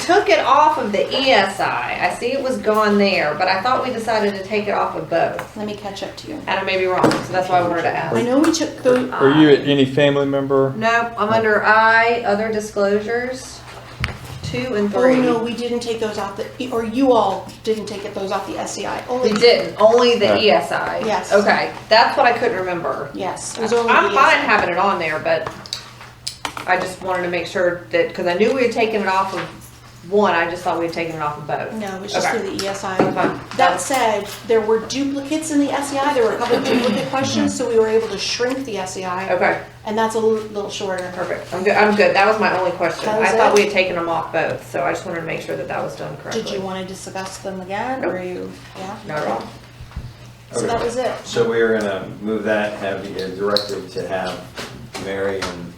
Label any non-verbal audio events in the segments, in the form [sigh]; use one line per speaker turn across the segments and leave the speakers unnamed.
took it off of the ESI. I see it was gone there, but I thought we decided to take it off of both.
Let me catch up to you.
And I may be wrong, so that's why I wanted to
I
ask.
know we took the,
Are you any family member?
No, I'm under I, other disclosures, two and
oh
three.
no, we didn't take those off the, or you all didn't take it, those off the SEI.
We
Only,
didn't, only the
No.
ESI.
Yes.
Okay, that's what I couldn't remember.
yes. it was only
I'm
the E
fine
ESI.
having it on there, but I just wanted to make sure that, because I knew we had taken it off of one, I just thought we had taken it off of both.
No, it was just
Okay.
through the E ESI.
Okay.
That said, there were duplicates in the SEI, there were a couple of duplicate questions, so we were able to shrink the SEI,
Okay,
and that's a li- little shorter.
perfect. I'm good, I'm good. That was my only question.
That
I
was
thought
it?
we had taken them off both, so I just wanted to make sure that that was done correctly.
Did you want to discuss them again, or you, yeah?
Not at all.
So that was it.
So we are gonna move that, have you directed to have Mary and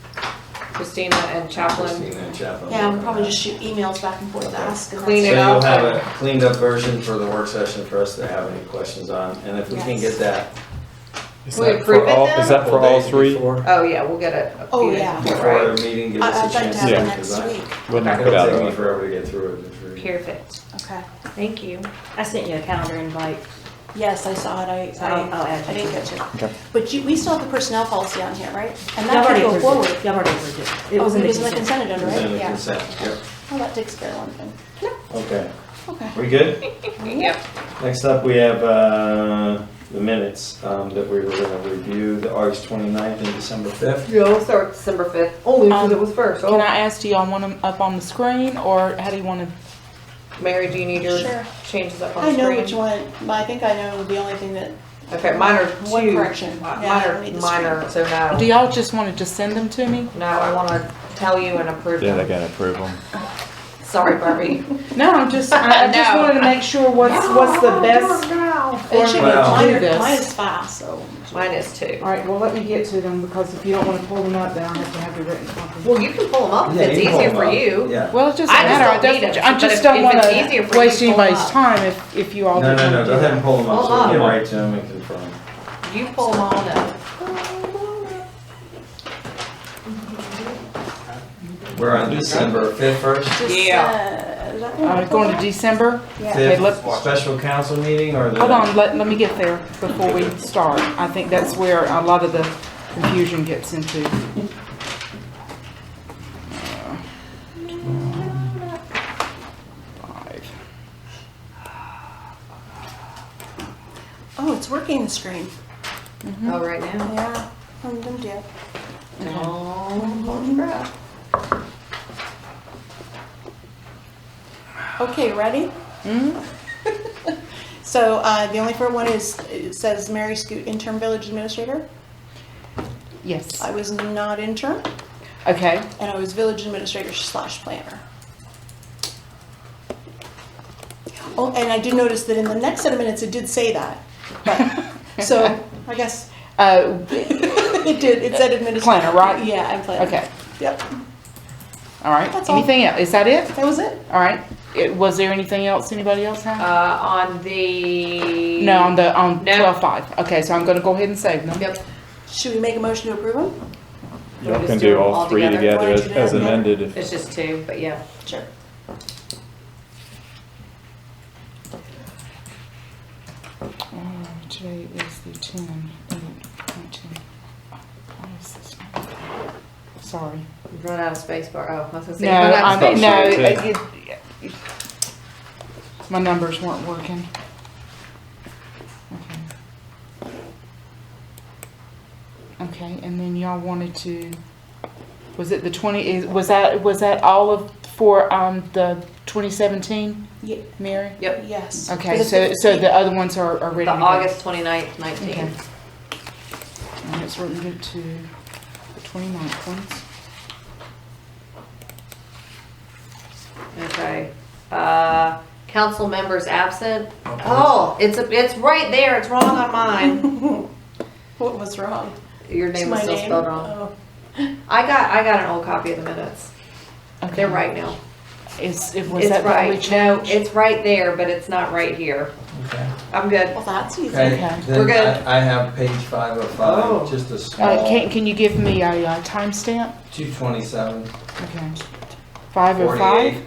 Christina and
Christina
Chaplin.
and Chaplin.
Yeah, we'll probably just shoot emails back and forth to ask. and
Clean
So
it
that's-
you'll
up.
have a cleaned up version for the work session for us to have any questions on, and if we can
Yes.
get that.
Is
We
that
approve
for
it
all-
then?
Is that for
couple
all
days
three?
Before
Oh, yeah, we'll get it. a
Oh,
few days
yeah.
before,
before our
right?
meeting, give
I- I'd
us a
like
chance.
to have
to
them
Yeah.
next
design.
week.
We'll knock it out.
It'll take me
of the way.
forever to get through it, it's really-
Perfect.
Okay.
Thank you.
I sent you a calendar invite.
Yes, I saw it. I,
I'll- I'll
I,
add
I didn't catch
Okay.
it. But you, we still have the personnel policy on here, right? And
Y'all
that
already
can go
approved
forward.
it. Y'all already approved it. It
Oh,
was in the
in the
consent.
consent agenda,
It's in
right?
the
Yeah.
consent, yep,
Well, that takes care of one thing.
okay,
Okay.
we good?
Yep.
Next up, we have uh, the minutes um, that we were gonna review, the August 29th and December 5th.
You'll start December fifth, only
Um,
because it was first.
Can
Oh,
I ask, do y'all want them up on the screen, or how do you want to?
Mary, do you need your
Sure.
changes up on
I
screen?
know which one, but I think I know the only thing that,
Okay, mine are two.
One correction.
Mi-
Yeah, I
Mine
need
are,
the
mine are, so
Do
no.
y'all just want to just send them to me?
No, I wanna tell you and approve
Yeah, they
them.
gotta approve them.
Sorry,
[laughs]
Barbie.
No, I'm just, I, I just
No.
wanted to make sure what's,
[laughs]
what's the best.
it should be,
Wow.
mine
Do
are-
this.
mine is five, so.
Mine is two.
All right, well, let me get to them, because if you don't wanna pull them up, then I'll have to have the written copy.
Well, you can pull them up if
Yeah,
it's
you can
easier
pull
for
them up.
you.
Yeah.
Well, it doesn't
I just
matter.
don't
I
need 'em,
just, I
but if-
just don't
if
want
it's easier for you
to waste
to pull 'em
anybody's
up.
time if, if you all.
No, no,
didn't
no,
do
go ahead
that.
and pull them up, so
Hold
we can
on.
write to them and confirm.
You pull them all up.
We're on December 5th first.
Yeah. Is that
Uh,
one?
going to December? Okay, let's-
Fifth, special council meeting or the?
Hold on, let, let me get there before we start. I think that's where a lot of the confusion gets into. Five.
Oh, it's working the screen.
Mm-hmm.
Oh, right now.
Yeah. Um, don't do it.
Mm-hmm.
Okay, ready? [laughs]
Mm-hmm.
So, uh, the only for one is, it says Mary Scoot, interim village administrator.
Yes,
I was not interim,
okay. [laughs]
and I was village administrator slash planner. Oh, and I did notice that in the next set of minutes, it did say that, but,
[laughs]
so, I guess, [laughs]
Uh,
it did, it said administrator.
Planner, right?
Yeah, I'm planner.
okay,
Yep,
all right.
That's all.
Anything else? Is that it?
that was it.
All right. It- Was there anything else anybody else
Uh,
had?
on the.
No, on the, on
No.
twelve five. Okay, so I'm gonna go ahead and save them.
Yep,
Should we make a motion to approve them?
Y'all
just
can
do
do
'em
all
all
three
together?
Why
together as
don't you do
as
them?
amended if
it's just two, but yeah.
Sure.
Uh, Today is the ten, uh, nineteen. Why is this not- Sorry.
We've Run out of space bar. Oh, I was gonna say.
No,
run out of
I,
space
no,
bar.
space.
it- it- my numbers weren't working. Okay, Okay, and then y'all wanted to, was it the twenty, is, was that, was that all of, for, um, the twenty seventeen,
Ye-
Mary?
Yep.
Yes.
Okay,
For the
so, so
15th.
the other ones are, are ready
The
to go.
August twenty-ninth,
Okay.
nineteenth.
And it's written to the twenty-ninth ones.
Okay. Uh, council members absent. Oh, it's, a it's right there. It's wrong on
[laughs]
mine.
What was wrong?
Your
It's
name
my
was still
name.
spelled wrong.
Oh.
I got, I got an old copy of the minutes.
Okay.
They're right now.
Is, it was
It's
that what we
right.
changed?
No, it's right there, but it's not right here.
Okay.
I'm good.
Well, that's easy.
Okay,
Okay.
We're
then
good.
I I have page five of
Oh.
five, just a
Uh, can,
small,
can you give me a uh, timestamp?
two twenty-seven,
Okay. Five oh
forty-eight,
five?